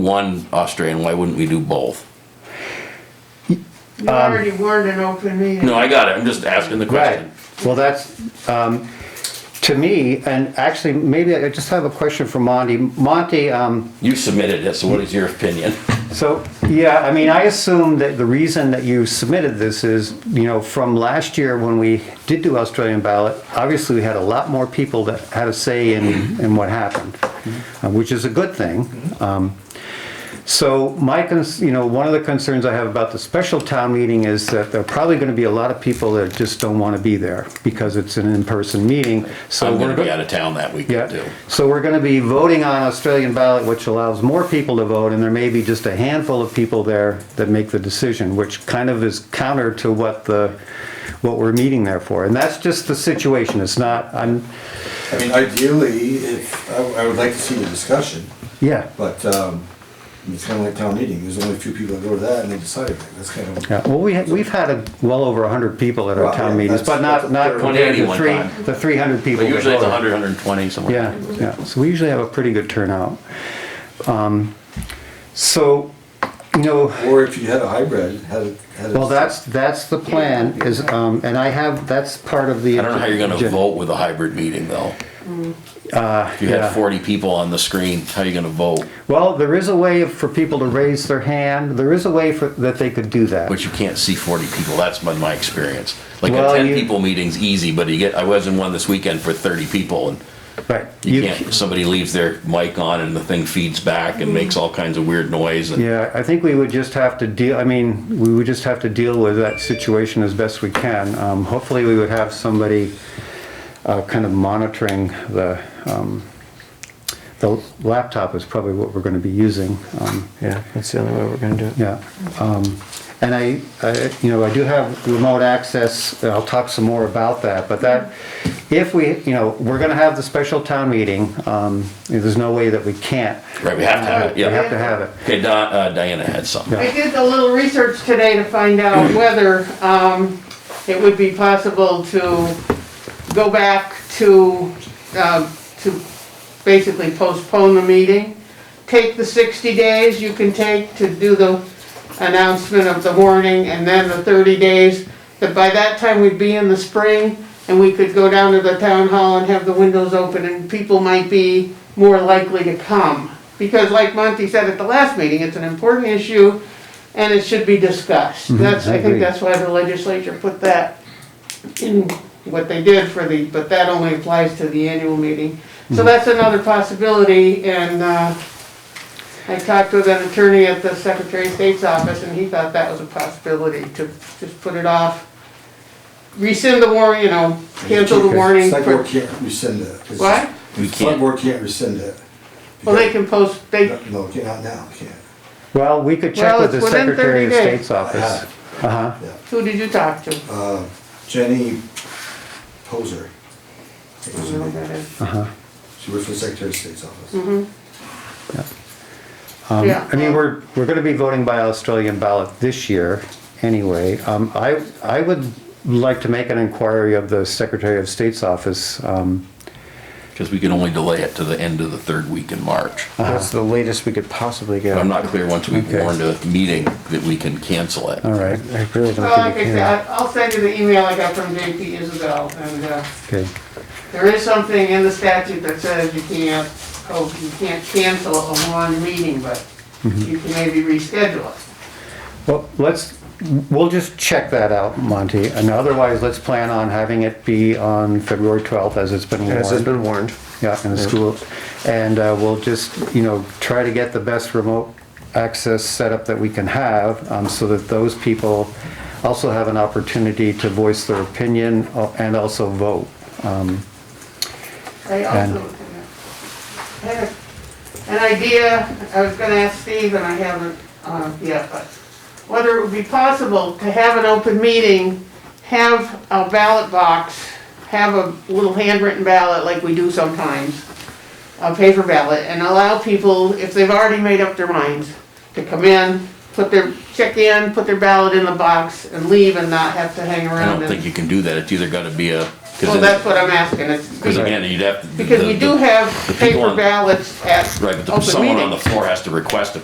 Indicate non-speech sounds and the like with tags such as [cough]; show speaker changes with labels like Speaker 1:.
Speaker 1: one Australian, why wouldn't we do both?
Speaker 2: You already warned an open meeting.
Speaker 1: No, I got it, I'm just asking the
Speaker 3: Right,
Speaker 1: question.
Speaker 3: well, that's, um, to me, and actually, maybe I just have a question for Monty. Monty, um,
Speaker 1: You submitted it, so what is your [laughs] opinion?
Speaker 3: so, yeah, I mean, I assume that the reason that you submitted this is, you know, from last year when we did do Australian ballot, obviously, we had a lot more people that had a say in, in what happened, uh, which is a good thing. Um, So my, cons- you know, one of the concerns I have about the special town meeting is that there are probably gonna be a lot of people that just don't wanna be there because it's an in-person meeting, so.
Speaker 1: I'm gonna
Speaker 3: we're go-
Speaker 1: be out of town that weekend
Speaker 3: Yeah,
Speaker 1: too.
Speaker 3: so we're gonna be voting on Australian ballot, which allows more people to vote, and there may be just a handful of people there that make the decision, which kind of is counter to what the, what we're meeting there for. And that's just the situation, it's not, I'm,
Speaker 4: I mean, ideally, if, I, I would like to see the discussion,
Speaker 3: yeah.
Speaker 4: but, um, it's kinda like town meeting, there's only a few people that go to that and they decide it, that's kinda.
Speaker 3: Yeah, well, we, we've had a- well over 100 people at our
Speaker 4: Well,
Speaker 3: town
Speaker 4: yeah,
Speaker 3: meetings, but
Speaker 4: that's-
Speaker 3: not,
Speaker 4: that's
Speaker 3: not
Speaker 4: third.
Speaker 3: compared to
Speaker 1: 180 one
Speaker 3: three,
Speaker 1: time.
Speaker 3: the 300 people.
Speaker 1: But
Speaker 3: that
Speaker 1: usually it's
Speaker 3: voted.
Speaker 1: 100, 120, somewhere.
Speaker 3: Yeah, yeah, so we usually have a pretty good turnout. Um, So, you know,
Speaker 4: Or if you had a hybrid, had, a- had. a-
Speaker 3: well, that's, that's the plan is, um, and I have, that's part of the.
Speaker 1: I don't know how you're gonna vote with a hybrid meeting though. Mm. If you
Speaker 3: yeah.
Speaker 1: had forty people on the screen, how you gonna vote?
Speaker 3: Well, there is a way for people to raise their hand, there is a way for, that they could do that.
Speaker 1: But you can't see forty people, that's been my experience. Like a
Speaker 3: Well,
Speaker 1: ten
Speaker 3: you-
Speaker 1: people meeting's easy, but you get, I was in one this weekend for thirty people and
Speaker 3: Right.
Speaker 1: you can't, somebody leaves their mic on and the thing feeds back and makes all kinds of weird noise and
Speaker 3: Yeah, I think we would just have to deal, I mean, we would just have to deal with that situation as best we can. Um, Hopefully, we would have somebody uh, kind of monitoring the, um, the laptop is probably what we're going to be using. Um,
Speaker 5: Yeah, that's the only way we're gonna do it.
Speaker 3: Yeah, um, and I, I, you know, I do have remote access, and I'll talk some more about that, but that, if we, you know, we're gonna have the special town meeting, um, there's no way that we can't.
Speaker 1: Right, we have to have it,
Speaker 3: We have
Speaker 1: yeah.
Speaker 3: to have it.
Speaker 1: Okay, Di- uh, Diana had something.
Speaker 2: I did a little research today to find out whether, um, it would be possible to go back to, um, to basically postpone the meeting. Take the sixty days you can take to do the announcement of the warning and then the thirty days. That by that time we'd be in the spring and we could go down to the town hall and have the windows open and people might be more likely to come. Because like Monty said at the last meeting, it's an important issue and it should be discussed. That's,
Speaker 3: I
Speaker 2: I
Speaker 3: agree.
Speaker 2: think that's why the legislature put that in what they did for the, but that only applies to the annual meeting.
Speaker 3: Mm-hmm.
Speaker 2: So that's another possibility, and uh, I talked with an attorney at the Secretary of State's office, and he thought that was a possibility, to just put it off. Rescind the war, you know, cancel the warning.
Speaker 4: Select
Speaker 2: for-
Speaker 4: board can't rescind it. It's-
Speaker 2: What?
Speaker 1: We
Speaker 4: Select
Speaker 1: can't.
Speaker 4: board can't rescind it.
Speaker 2: Well, they can post, they,
Speaker 4: No, No, you can't, not now, you can't,
Speaker 3: Well, we could check
Speaker 2: Well,
Speaker 3: with
Speaker 2: it's
Speaker 3: the
Speaker 2: within 30
Speaker 3: Secretary of
Speaker 2: days.
Speaker 3: State's office.
Speaker 4: have.
Speaker 3: Uh-huh,
Speaker 4: yeah.
Speaker 2: who did you talk to?
Speaker 4: Uh, Jenny Poser. I think was her name.
Speaker 3: uh-huh.
Speaker 4: She works for the Secretary of State's office.
Speaker 2: Hmm.
Speaker 3: Um,
Speaker 2: Yeah.
Speaker 3: I mean, we're, we're gonna be voting by Australian ballot this year, anyway. Um, I, I would like to make an inquiry of the Secretary of State's office, um,
Speaker 1: Because we can only delay it to the end of the third week in March.
Speaker 5: That's the latest we could possibly get.
Speaker 1: I'm not clear once we've
Speaker 3: Okay.
Speaker 1: warned a meeting that we can cancel it.
Speaker 3: all right,
Speaker 5: I
Speaker 2: Well,
Speaker 5: really don't
Speaker 2: like Oh, I
Speaker 5: think,
Speaker 2: said,
Speaker 5: yeah.
Speaker 2: I- I'll send you the email I got from JP Isabel, and uh,
Speaker 3: okay.
Speaker 2: There is something in the statute that says you can't, oh, you can't cancel a one meeting, but you can maybe reschedule it.
Speaker 3: Well, let's, we'll just check that out, Monty, and otherwise, let's plan on having it be on February 12th, as it's been
Speaker 5: As has
Speaker 3: warned.
Speaker 5: been warned.
Speaker 3: Yeah, in the school, and uh, we'll just, you know, try to get the best remote access setup that we can have, um, so that those people also have an opportunity to voice their opinion uh, and also vote. Um,
Speaker 2: I also had a- an idea, I was gonna ask Steve, and I haven't, uh, yet, but whether it would be possible to have an open meeting, have a ballot box, have a little handwritten ballot like we do sometimes, a paper ballot and allow people, if they've already made up their minds, to come in, put their, check in, put their ballot in the box and leave and not have to hang
Speaker 1: I
Speaker 2: around
Speaker 1: don't
Speaker 2: and.
Speaker 1: think you can do that. It's either gotta be a,
Speaker 2: Well, that's
Speaker 1: because
Speaker 2: what I'm asking, it's,
Speaker 1: again, you'd have. to-
Speaker 2: because we do have
Speaker 1: the people
Speaker 2: paper
Speaker 1: on-
Speaker 2: ballots at
Speaker 1: Right, but the-
Speaker 2: open
Speaker 1: someone on the
Speaker 2: meetings.
Speaker 1: floor has to request a